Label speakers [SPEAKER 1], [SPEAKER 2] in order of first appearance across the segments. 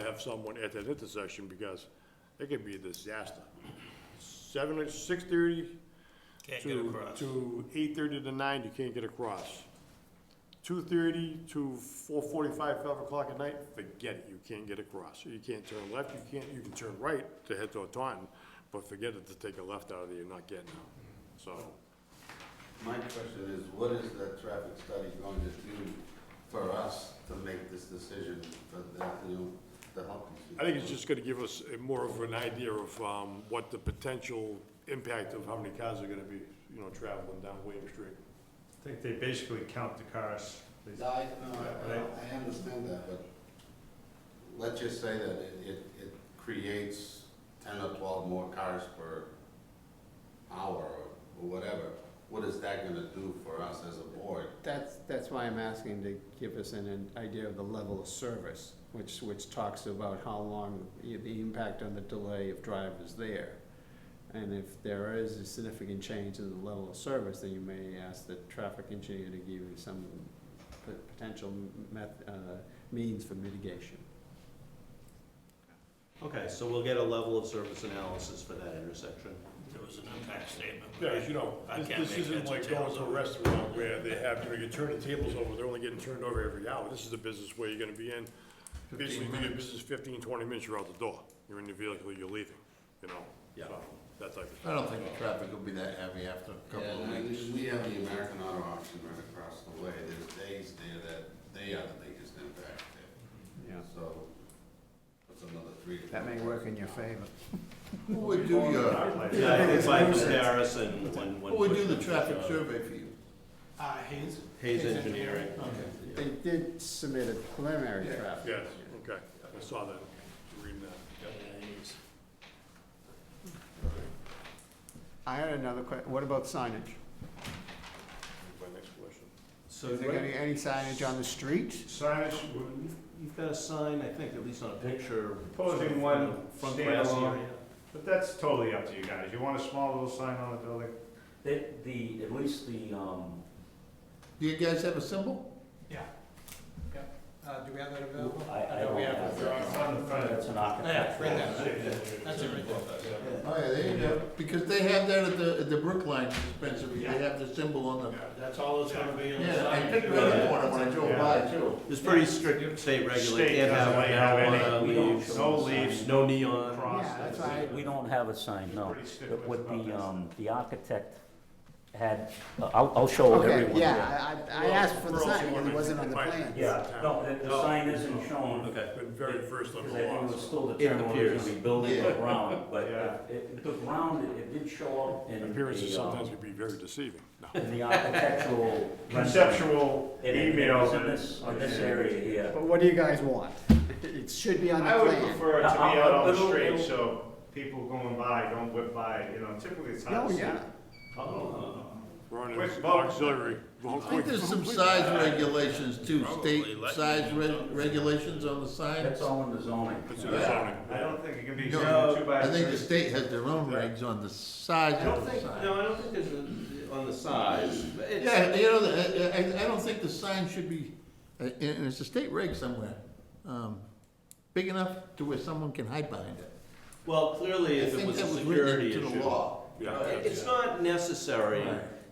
[SPEAKER 1] have someone at that intersection because it could be a disaster. Seven, six thirty
[SPEAKER 2] Can't get
[SPEAKER 1] to,
[SPEAKER 2] across.
[SPEAKER 1] to eight thirty to nine, you can't get across. Two thirty to four forty-five, five o'clock at night, forget it, you can't get across. You can't turn left, you can't, you can turn right to head toward Taunton, but forget it to take a left out of there, you're not getting out. So,
[SPEAKER 3] My question is, what is that traffic study going to do for us to make this decision for the, you know, to help these
[SPEAKER 1] I
[SPEAKER 3] people?
[SPEAKER 1] think it's just gonna give us a more of an idea of, um, what the potential impact of how many cars are gonna be, you know, traveling down William Street.
[SPEAKER 4] I think they basically count the cars. They-
[SPEAKER 3] No, I, no, I- I, I understand that, but let's just say that it, it, it creates ten or twelve more cars per hour or whatever. What is that gonna do for us as a board?
[SPEAKER 5] That's, that's why I'm asking to give us an- an idea of the level of service, which, which talks about how long, the the impact on the delay of drivers there. And if there is a significant change in the level of service, then you may ask the traffic engineer to give you some p- potential meth, uh, means for mitigation.
[SPEAKER 6] Okay, so we'll get a level of service analysis for that intersection.
[SPEAKER 2] There was an impact statement.
[SPEAKER 1] Yeah, as you know,
[SPEAKER 2] I
[SPEAKER 1] this-
[SPEAKER 2] can't
[SPEAKER 1] this
[SPEAKER 2] make
[SPEAKER 1] isn't
[SPEAKER 2] heads or
[SPEAKER 1] like going
[SPEAKER 2] tails
[SPEAKER 1] to a
[SPEAKER 2] of it.
[SPEAKER 1] restaurant where they have, you know, you turn the tables over, they're only getting turned over every hour. This is a business where you're gonna be in, basically, do your business fifteen, twenty minutes, you're out the door. You're in your vehicle, you're leaving, you know?
[SPEAKER 6] Yeah.
[SPEAKER 1] So, That type of
[SPEAKER 7] I
[SPEAKER 1] thing.
[SPEAKER 7] don't think the traffic will be that heavy after a couple of
[SPEAKER 3] Yeah, and
[SPEAKER 7] weeks.
[SPEAKER 3] We have the American Auto Auction right across the way, there's days there that they are the biggest impact there,
[SPEAKER 5] Yeah.
[SPEAKER 3] so that's another three. to
[SPEAKER 5] That may
[SPEAKER 3] four
[SPEAKER 5] work in your
[SPEAKER 3] thousand.
[SPEAKER 5] favor.
[SPEAKER 7] Who would do your,
[SPEAKER 6] Yeah, I think by comparison, when, when.
[SPEAKER 7] who would do the traffic survey for you?
[SPEAKER 8] Uh, Hayes?
[SPEAKER 6] Hayes Engineering.
[SPEAKER 5] They did submit a preliminary traffic.
[SPEAKER 1] Yes, okay. I saw that. Reading that.
[SPEAKER 5] I had another que, what about signage?
[SPEAKER 1] My next question.
[SPEAKER 6] So
[SPEAKER 5] Is there
[SPEAKER 6] what-
[SPEAKER 5] any, any signage on the street?
[SPEAKER 4] Signage, would-
[SPEAKER 6] you've got a sign, I think, at least on a picture.
[SPEAKER 4] Posing one
[SPEAKER 6] Front grass
[SPEAKER 4] standalone.
[SPEAKER 6] area.
[SPEAKER 4] but that's totally up to you guys. You want a small little sign on the building?
[SPEAKER 9] The, the, at least the, um,
[SPEAKER 7] Do you guys have a symbol?
[SPEAKER 8] Yeah. Yep. Uh, do we have that
[SPEAKER 9] I,
[SPEAKER 8] available?
[SPEAKER 9] I
[SPEAKER 8] No,
[SPEAKER 9] don't
[SPEAKER 8] we
[SPEAKER 9] have
[SPEAKER 8] have-
[SPEAKER 4] It's on the front.
[SPEAKER 9] That's an
[SPEAKER 8] Yeah,
[SPEAKER 9] architect.
[SPEAKER 8] right there. That's it right there.
[SPEAKER 7] Oh, yeah, there you go. Because they have that at the, at the Brookline dispensary, they
[SPEAKER 8] Yeah.
[SPEAKER 7] have the symbol on the,
[SPEAKER 8] That's all it's gonna be on the
[SPEAKER 7] yeah, I
[SPEAKER 8] side.
[SPEAKER 7] picked it up in the morning when I drove by too.
[SPEAKER 6] There's pretty strict state
[SPEAKER 4] State
[SPEAKER 6] regulation, can't have
[SPEAKER 4] doesn't let you have
[SPEAKER 6] marijuana
[SPEAKER 4] any-
[SPEAKER 9] we don't
[SPEAKER 6] leaves,
[SPEAKER 4] No leaves,
[SPEAKER 6] no neon.
[SPEAKER 4] cross.
[SPEAKER 5] Yeah, that's why-
[SPEAKER 9] We don't have a sign, no.
[SPEAKER 4] Pretty stiff
[SPEAKER 9] But
[SPEAKER 4] with
[SPEAKER 9] What the,
[SPEAKER 4] buttons.
[SPEAKER 9] um, the architect had, uh, I'll, I'll show
[SPEAKER 5] Okay,
[SPEAKER 9] everyone.
[SPEAKER 5] yeah, I, I I asked for the
[SPEAKER 1] Well,
[SPEAKER 5] sign, and it wasn't on the
[SPEAKER 1] Right.
[SPEAKER 5] plan.
[SPEAKER 9] Yeah, no, the, the sign isn't shown.
[SPEAKER 6] Okay.
[SPEAKER 1] Been very first on the
[SPEAKER 9] Because I think it
[SPEAKER 1] law.
[SPEAKER 9] was still determined whether it was gonna be building or ground, but
[SPEAKER 4] Yeah.
[SPEAKER 9] it- it, the ground, it- it did show up in
[SPEAKER 1] Appearances
[SPEAKER 2] uh,
[SPEAKER 9] the,
[SPEAKER 1] sometimes
[SPEAKER 9] um,
[SPEAKER 1] can be very deceiving. No.
[SPEAKER 9] in the architectural.
[SPEAKER 4] Conceptual
[SPEAKER 9] It- it
[SPEAKER 4] email.
[SPEAKER 9] was in this, in this area here.
[SPEAKER 5] But what do you guys want? It should be on the
[SPEAKER 4] I would
[SPEAKER 5] plan.
[SPEAKER 4] prefer it to be
[SPEAKER 9] Uh,
[SPEAKER 4] out on the
[SPEAKER 9] little-
[SPEAKER 4] street,
[SPEAKER 9] little-
[SPEAKER 4] so people going by don't whip by, you know, typically it's hard
[SPEAKER 5] Oh,
[SPEAKER 4] to see.
[SPEAKER 5] yeah.
[SPEAKER 9] Oh.
[SPEAKER 1] We're on
[SPEAKER 4] Quick
[SPEAKER 1] an
[SPEAKER 4] vote.
[SPEAKER 1] auxiliary. Well,
[SPEAKER 7] I think
[SPEAKER 1] quick.
[SPEAKER 7] there's some size regulations too, state
[SPEAKER 2] Probably let
[SPEAKER 7] size
[SPEAKER 2] you
[SPEAKER 7] re-
[SPEAKER 2] know.
[SPEAKER 7] regulations on the signs.
[SPEAKER 9] That's all in the zoning.
[SPEAKER 1] It's in the zoning.
[SPEAKER 4] I don't think it can be two
[SPEAKER 7] No,
[SPEAKER 4] two by
[SPEAKER 7] I
[SPEAKER 4] three.
[SPEAKER 7] think the state has their own regs on the size
[SPEAKER 6] I don't
[SPEAKER 7] of the
[SPEAKER 6] think,
[SPEAKER 7] sign.
[SPEAKER 6] no, I don't think there's a, on the size, but it's.
[SPEAKER 7] Yeah, you know, I, I, I don't think the sign should be, uh, and and it's a state reg somewhere, um, big enough to where someone can hide behind it.
[SPEAKER 6] Well, clearly,
[SPEAKER 7] I
[SPEAKER 6] if it
[SPEAKER 7] think
[SPEAKER 6] was a
[SPEAKER 7] that was written
[SPEAKER 6] security
[SPEAKER 7] into
[SPEAKER 6] issue.
[SPEAKER 7] the law.
[SPEAKER 1] Yeah.
[SPEAKER 6] Uh, it- It's not necessary,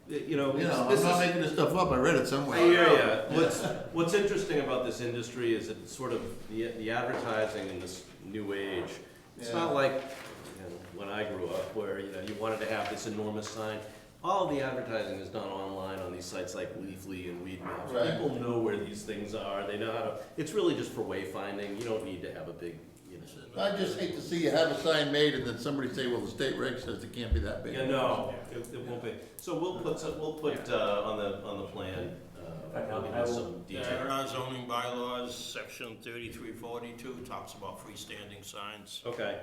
[SPEAKER 6] you know,
[SPEAKER 7] You
[SPEAKER 6] this
[SPEAKER 7] know,
[SPEAKER 6] this
[SPEAKER 7] I'm not
[SPEAKER 6] is,
[SPEAKER 7] making this stuff up, I read it
[SPEAKER 6] I
[SPEAKER 7] somewhere.
[SPEAKER 6] hear ya. What's, what's interesting about this industry is it's sort of the, the advertising in this new age. It's not like, you know, when I grew up, where, you know, you wanted to have this enormous sign. All the advertising is done online on these sites like Leafly and Weed Maps.
[SPEAKER 7] Right.
[SPEAKER 6] People know where these things are, they know how to, it's really just for wayfinding, you don't need to have a big, you know.
[SPEAKER 7] I just hate to see you have a sign made and then somebody say, well, the state reg says it can't be that big.
[SPEAKER 6] Yeah, no, it, it won't be. So we'll put, some- we'll put, uh, on the, on the plan, uh, we'll give
[SPEAKER 9] I
[SPEAKER 6] you
[SPEAKER 9] will-
[SPEAKER 6] some
[SPEAKER 2] There
[SPEAKER 6] detail.
[SPEAKER 2] are zoning bylaws, section thirty-three forty-two talks about freestanding signs.
[SPEAKER 6] Okay,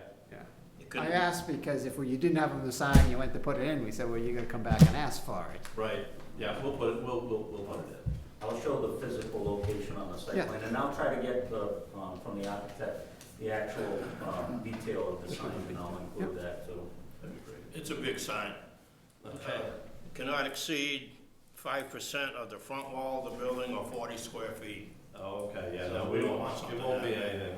[SPEAKER 2] It
[SPEAKER 5] I
[SPEAKER 2] couldn't-
[SPEAKER 5] asked because if you didn't have on the sign, you went to put it in, we said, well, you're gonna come back and ask for it.
[SPEAKER 6] right, yeah, we'll put it, we'll, we'll, we'll put it in.
[SPEAKER 9] I'll show the physical location on the
[SPEAKER 5] Yeah.
[SPEAKER 9] site plan, and I'll try to get the, um, from the architect, the actual, um, detail of the sign, and I'll include that too.
[SPEAKER 2] It's a big sign.
[SPEAKER 6] Okay.
[SPEAKER 2] Uh, Cannot exceed five percent of the front wall of the building or forty square feet.
[SPEAKER 6] Oh, okay, yeah, no,
[SPEAKER 2] So
[SPEAKER 6] we
[SPEAKER 2] we don't
[SPEAKER 6] don't,
[SPEAKER 2] want
[SPEAKER 6] it
[SPEAKER 2] something
[SPEAKER 6] won't be
[SPEAKER 2] that-
[SPEAKER 6] anything.